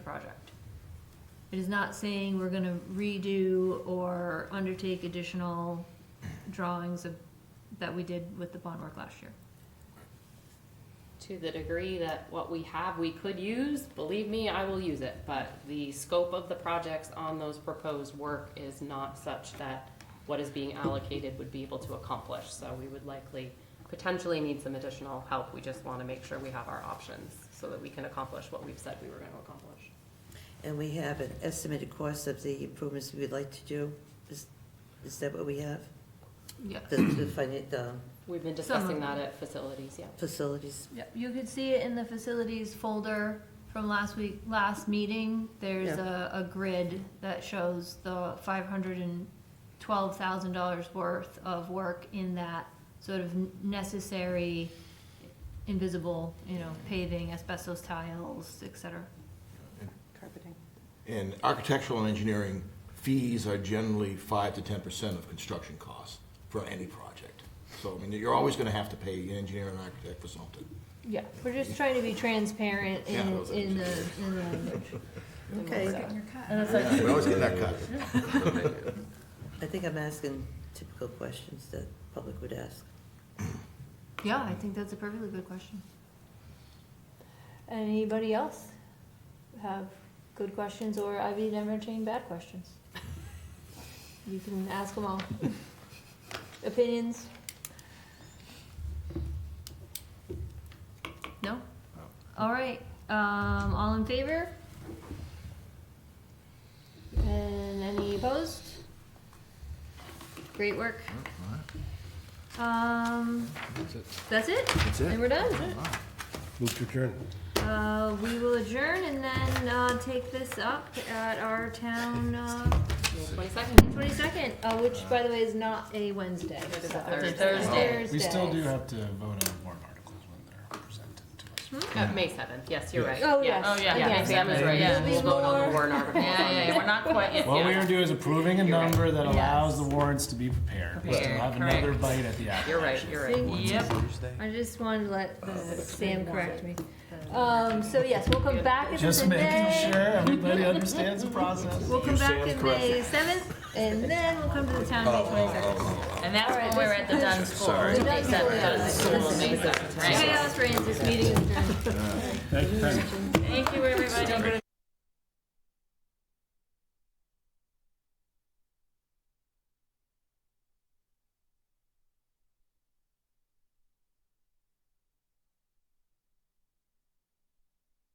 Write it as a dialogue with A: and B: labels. A: project. It is not saying we're gonna redo or undertake additional drawings of, that we did with the bond work last year.
B: To the degree that what we have we could use, believe me, I will use it, but the scope of the projects on those proposed work is not such that what is being allocated would be able to accomplish, so we would likely potentially need some additional help. We just wanna make sure we have our options so that we can accomplish what we've said we were gonna accomplish.
C: And we have an estimated cost of the improvements we would like to do. Is, is that what we have?
A: Yeah.
C: The, the finan- the
B: We've been
A: Some of
B: discussing that
A: them.
B: at facilities, yeah.
C: facilities?
A: Yep, you could see it in the facilities folder from last week, last meeting. There's a, a grid that shows the five hundred and twelve thousand dollars worth of work in that sort of necessary, invisible, you know, paving, asbestos tiles, et cetera.
B: Carpeting.
D: And architectural and engineering fees are generally five to ten percent of construction costs for any project. So, I mean, you're always gonna have to pay an engineer and architect for something.
A: Yeah. We're just trying to be transparent in,
D: Yeah, those are
A: in the,
D: engineers.
A: in the language.
C: Okay,
A: And that's like,
D: We always get that cut.
C: I think I'm asking typical questions that public would ask.
A: yeah, I think that's a perfectly good question. Anybody else have good questions or I've even entertained bad questions? You can ask them all. Opinions? No? All right, um, all in favor? And any opposed? Great work. Um, that's it? That's it. And we're done?
E: Move to adjourn.
A: Uh, we will adjourn and then, uh, take this up at our town, uh,
B: Twenty-second.
A: twenty-second, uh, which, by the way, is not a Wednesday.
B: It is a
A: so-
B: Thursday.
E: Oh, We still do
A: Thursdays.
E: have to vote on warrant articles when they're presented to us.
B: Uh, May seventh, yes, you're right.
A: Oh,
B: Yeah.
A: yes. Oh, yeah.
B: Yeah,
A: Yeah.
B: May seventh, right,
A: Yeah.
B: we'll vote on the
A: More-
B: warrant articles on
F: Yeah, yeah,
B: May
F: we're not quite yet.
E: What we're gonna do is approving a
B: You're right.
E: number that
F: Yes.
E: allows the warrants to be prepared. We still
F: Prepared,
E: have another
F: correct.
E: bite at the apple.
B: You're right, you're right.
F: Yep.
A: I just wanted to let
E: Oh,
A: the- Sam correct me. Um, so yes, we'll come back at this
E: Just
A: in
E: making
A: May.
E: sure everybody understands the process.
A: We'll come back in May seventh, and then we'll come to the town May twenty-second.
F: And that's when we're at the Dunn's School.
A: The Dunn's School, yeah.
F: School, May 7th, right?
A: Chaos reigns, this meeting is adjourned.
E: Thank you, thank you.
F: Thank you, everybody.